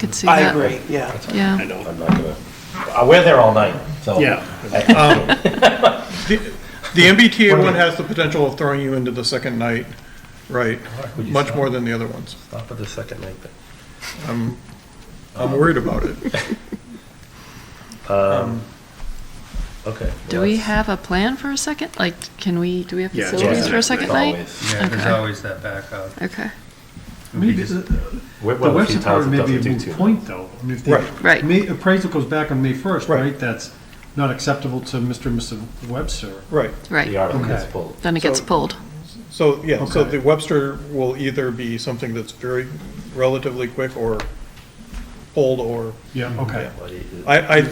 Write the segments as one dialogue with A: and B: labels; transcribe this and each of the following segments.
A: Could see
B: I
A: that.
B: agree, yeah.
A: Yeah.
C: I'm not gonna, uh, we're there all night, so.
D: Yeah.
C: I-
D: The MBTA
C: What
D: one
C: do you-
D: has the potential of throwing you into the second night, right,
C: Would you
D: much
C: stop?
D: more than the other ones.
C: Stop for the second night, but.
D: I'm worried about it.
C: Okay.
A: Do
C: well,
A: we
C: that's-
A: have a plan for a second? Like, can we, do we have
E: Yeah, it's
A: facilities
C: yeah,
A: for a
C: it's
A: second night?
C: always-
E: Yeah, there's
A: Okay.
E: always that backup.
A: Okay,
F: Maybe, the
C: We're
F: the
C: one of the few
F: website part
C: towns that
F: may
C: doesn't
F: be a
C: do
F: moot
C: two.
F: point, though. I mean, if the-
D: Right.
A: Right.
F: May, appraisal goes back on May first,
D: Right.
F: right? That's not acceptable to Mr. and Mrs. Webster.
D: Right.
C: The
A: right.
C: article gets
F: Okay.
C: pulled.
A: Then it gets
D: So-
A: pulled.
D: So, yeah, so
F: Okay.
D: the Webster will either be something that's very relatively quick or old or,
F: Yeah, okay.
C: But it- it-
D: I, I,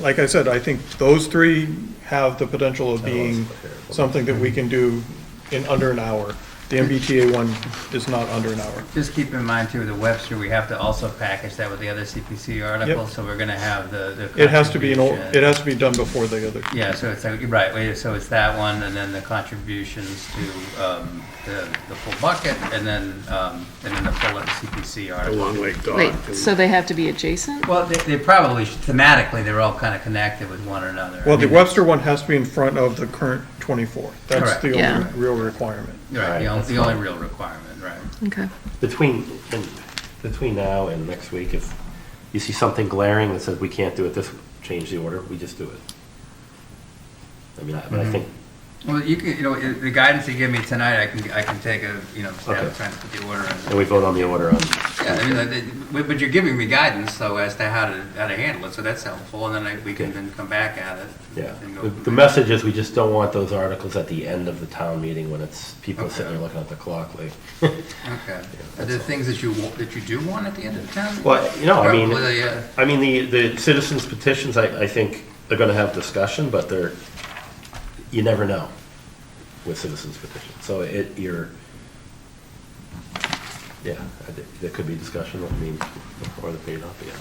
D: like I said, I think those three have the potential of being something that we can do in under an hour. The MBTA one is not under an hour.
G: Just keep in mind too, the Webster, we have to also package that with the other CPC articles, so we're gonna have the, the.
D: It has to be an, old.
G: contribution.
D: it has to be done before the other.
G: Yeah, so it's, like- right, wait, so it's that one, and then the contributions to, um, the, the full bucket, and then, um, and then the full CPC
E: a
G: article.
E: long way gone.
A: Wait, so they have to be adjacent?
G: Well, they, they probably, should- thematically, they're all kinda connected with one another.
D: Well, the Webster one has to be in front of the current 24. That's
G: Correct.
D: the
A: Yeah.
D: only real requirement.
G: Right, the
C: Right,
G: only,
C: that's
G: the only real requirement, right.
A: Okay.
C: Between, and- between now and next week, if you see something glaring that says we can't do it this, change the order, we just do it. I mean, I- but I think,
G: Well, you can, you know, i- the guidance you give me tonight, I can, I can take a, you know, stab
C: Okay.
G: at trying to put the order in.
C: and we vote on the order on,
G: Yeah, I mean, like, it- but- but you're giving me guidance, though, as to how to, how to handle it, so that's helpful, and then I- we can then come back at it.
C: yeah.
G: and go
C: The-
G: from
C: The
G: there.
C: message is we just don't want those articles at the end of the town meeting when it's, people sitting there
G: Okay.
C: looking at the clock like,
G: Okay. Are
C: that's
G: there
C: all.
G: things that you, wa- that you do want at the end of the town?
C: Well, you know, I mean-
G: Probably, uh,
C: I mean, the, the citizens petitions, I, I think they're gonna have discussion, but they're, you never know with citizens petitions. So it, you're, yeah, I think there could be discussion, I mean, or there may not be, I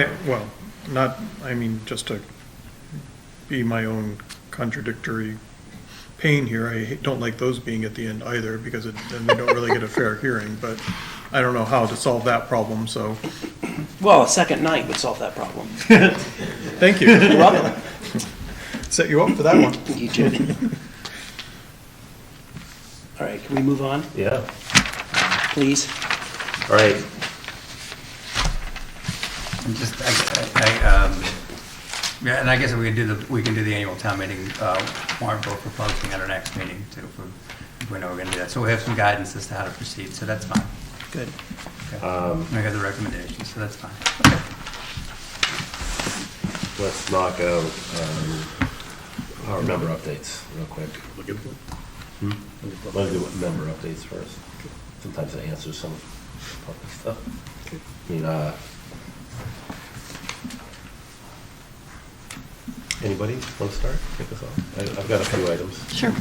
C: don't know.
D: I, well, not, I mean, just to be my own contradictory pain here, I ha- don't like those being at the end either, because it- then they don't really get a fair hearing, but I don't know how to solve that problem, so,
B: Well, a second night would solve that problem.
D: thank you.
B: You're welcome.
D: Set you up for that one.
B: You too. All right, can we move on,
C: Yeah,
B: please?
C: all right,
G: I'm just, I, I, I, um, yeah, and I guess we can do the, we can do the annual town meeting, uh, warrant vote for posting at our next meeting, too, if we- if we know we're gonna do that. So we have some guidance as to how to proceed, so that's fine.
D: Good.
G: Okay. And I got the recommendations, so that's fine.
C: let's knock out, um, our member updates real quick.
E: Look at them.
C: Let's do member updates first. Sometimes it answers some public stuff. I mean, uh, anybody want to start? Kick us off. I- I've got a few items.
A: Sure.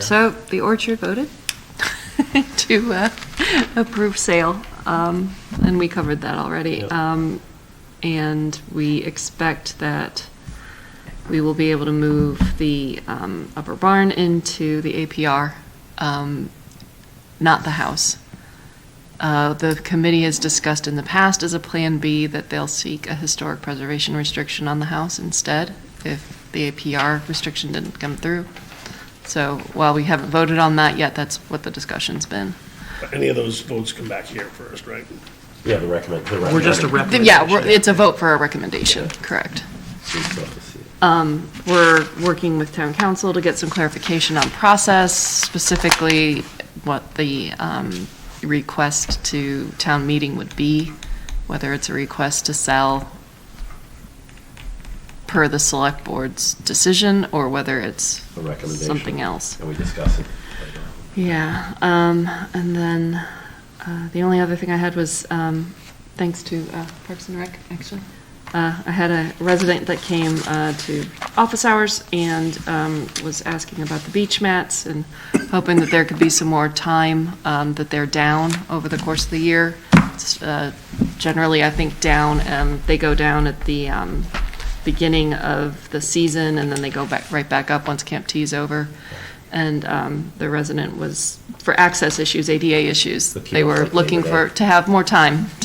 A: So the orchard voted to uh, approve sale, um, and we covered that already.
C: Yep.
A: Um, And we expect that we will be able to move the um, upper barn into the APR, um, not the house. Uh, The committee has discussed in the past as a Plan B that they'll seek a historic preservation restriction on the house instead, if the APR restriction didn't come through. So while we haven't voted on that yet, that's what the discussion's been.
E: Any of those votes come back here first, right?
C: Yeah, the recommend. the
B: We're just a
C: recommended
B: recommendation.
A: Yeah, we're- it's a vote for a recommendation, correct. Um,
C: seats off the seat.
A: Uh, We're working with town council to get some clarification on process, specifically what the um, request to town meeting would be, whether it's a request to sell per the select board's decision, or whether it's
C: A recommendation.
A: something else.
C: And we discuss it.
A: Yeah, um, and then, uh, the only other thing I had was, um, thanks to, uh, Parks and Rec, actually. Uh, I had a resident that came, uh, to office hours and, um, was asking about the beach mats and hoping that there could be some more time, um, that they're down over the course of the year. It's, uh, Generally, I think down, um, they go down at the, um, beginning of the season and then they go back, right back up once Camp T is over. and um, the resident was, for access issues, ADA issues,
C: The
A: they were
C: kiosk, like,
A: looking
C: they
A: for,
C: were-
A: to have more time